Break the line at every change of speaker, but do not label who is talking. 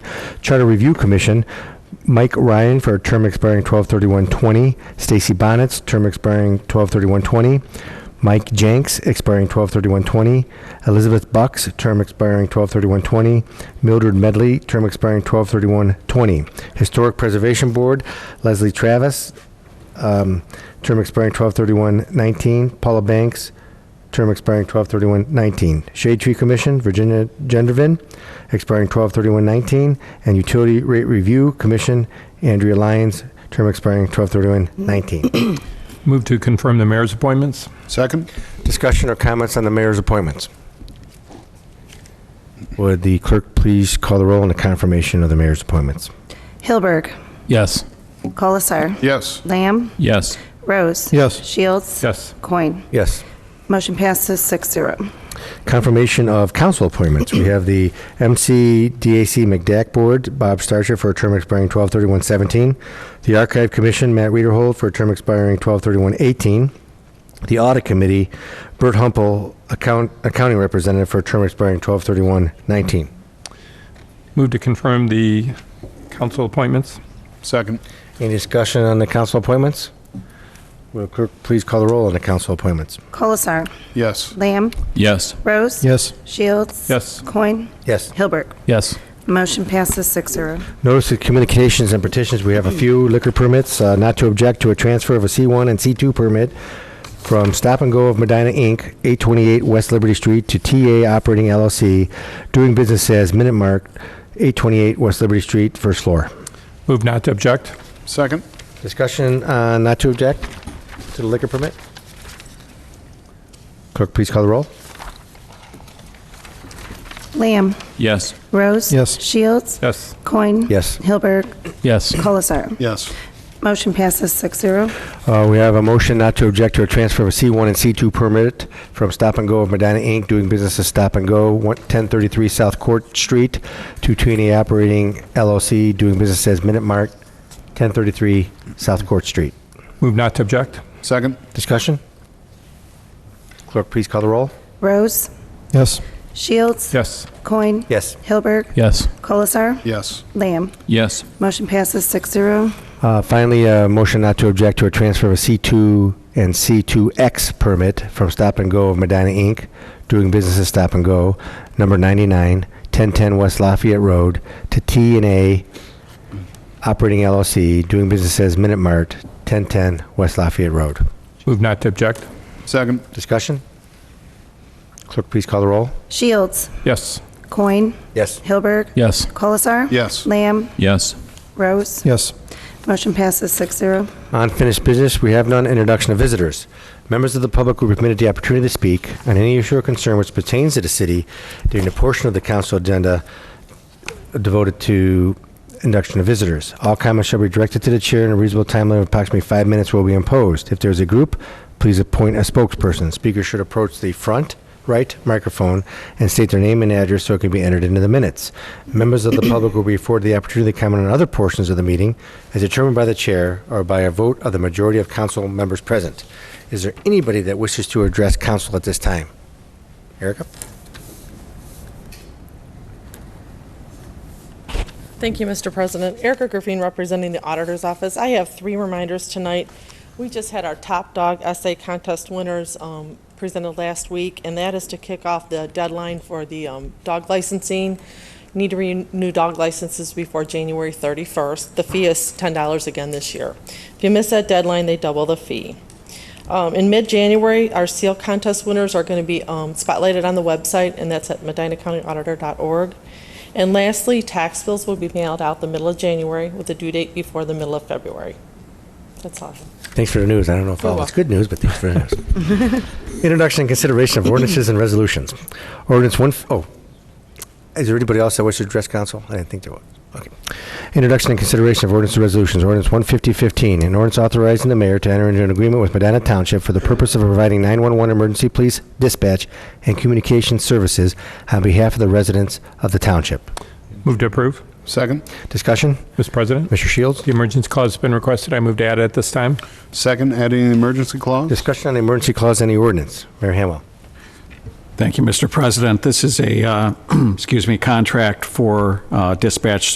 Charter Review Commission, Mike Ryan for a term expiring 12/31/20, Stacy Bonnet's term expiring 12/31/20, Mike Jenks expiring 12/31/20, Elizabeth Bucks, term expiring 12/31/20, Mildred Medley, term expiring 12/31/20, Historic Preservation Board, Leslie Travis, um, term expiring 12/31/19, Paula Banks, term expiring 12/31/19. Shade Tree Commission, Virginia Gendrivin, expiring 12/31/19, and Utility Rate Review Commission, Andrea Lyons, term expiring 12/31/19.
Move to confirm the mayor's appointments.
Second?
Discussion or comments on the mayor's appointments? Would the clerk please call the roll on the confirmation of the mayor's appointments?
Hilberg.
Yes.
Colasar.
Yes.
Lamb.
Yes.
Rose.
Yes.
Shields.
Yes.
Coin.
Yes.
Motion passes six zero.
Confirmation of council appointments. We have the MC DAC McDack Board, Bob Starcher for a term expiring 12/31/17. The Archive Commission, Matt Reederhold for a term expiring 12/31/18. The Audit Committee, Bert Humpel, account- Accounting Representative for a term expiring 12/31/19.
Move to confirm the council appointments.
Second?
Any discussion on the council appointments? Will clerk please call the roll on the council appointments?
Colasar.
Yes.
Lamb.
Yes.
Rose.
Yes.
Shields.
Yes.
Coin.
Yes.
Hilberg.
Yes.
Motion passes six zero.
Notice of communications and petitions, we have a few liquor permits, uh, not to object to a transfer of a C1 and C2 permit from Stop and Go of Medina, Inc., 828 West Liberty Street to TA Operating LLC, doing business as Minute Mark, 828 West Liberty Street, first floor.
Move not to object.
Second?
Discussion, uh, not to object to the liquor permit? Clerk, please call the roll.
Lamb.
Yes.
Rose.
Yes.
Shields.
Yes.
Coin.
Yes.
Hilberg.
Yes.
Colasar.
Yes.
Motion passes six zero.
Uh, We have a motion not to object to a transfer of a C1 and C2 permit from Stop and Go of Medina, Inc., doing business as Stop and Go, one- 1033 South Court Street, to Tweeney Operating LLC, doing business as Minute Mark, 1033 South Court Street.
Move not to object.
Second?
Discussion? Clerk, please call the roll.
Rose.
Yes.
Shields.
Yes.
Coin.
Yes.
Hilberg.
Yes.
Colasar.
Yes.
Lamb.
Yes.
Motion passes six zero.
Uh, Finally, a motion not to object to a transfer of a C2 and C2X permit from Stop and Go of Medina, Inc., doing business as Stop and Go, number 99, 1010 West Lafayette Road, to T and A Operating LLC, doing business as Minute Mart, 1010 West Lafayette Road.
Move not to object.
Second?
Discussion? Clerk, please call the roll.
Shields.
Yes.
Coin.
Yes.
Hilberg.
Yes.
Colasar.
Yes.
Lamb.
Yes.
Rose.
Yes.
Motion passes six zero.
Unfinished business, we have none. Introduction of visitors. Members of the public will be permitted the opportunity to speak on any issue or concern which pertains to the city during the portion of the council agenda devoted to induction of visitors. All comments shall be directed to the chair and a reasonable time limit of approximately five minutes will be imposed. If there is a group, please appoint a spokesperson. Speakers should approach the front right microphone and state their name and address so it can be entered into the minutes. Members of the public will be afforded the opportunity to comment on other portions of the meeting as determined by the chair or by a vote of the majority of council members present. Is there anybody that wishes to address council at this time? Erica?
Thank you, Mr. President. Erica Griffin, representing the Auditor's Office. I have three reminders tonight. We just had our Top Dog Essay Contest winners um, presented last week, and that is to kick off the deadline for the um, dog licensing. Need to renew dog licenses before January 31st. The fee is $10 again this year. If you miss that deadline, they double the fee. Um, In mid-January, our seal contest winners are going to be um, spotlighted on the website, and that's at medinacountyauditor.org. And lastly, tax bills will be mailed out the middle of January with a due date before the middle of February. That's all.
Thanks for the news. I don't know if
You're
all it's good news, but thanks for the news. Introduction and consideration of ordinances and resolutions. Ordinance one, f- oh, is there anybody else that wishes to address council? I didn't think there was. Okay. Introduction and consideration of ordinance and resolutions. Ordinance 15015, an ordinance authorizing the mayor to enter into an agreement with Medina Township for the purpose of providing 911 emergency police dispatch and communication services on behalf of the residents of the township.
Move to approve.
Second?
Discussion?
Mr. President,
Mr. Shields?
the emergency clause has been requested. I move to add it at this time.
Second, adding an emergency clause?
Discussion on the emergency clause in the ordinance. Mayor Hamwell.
Thank you, Mr. President. This is a, uh, excuse me, contract for uh, dispatch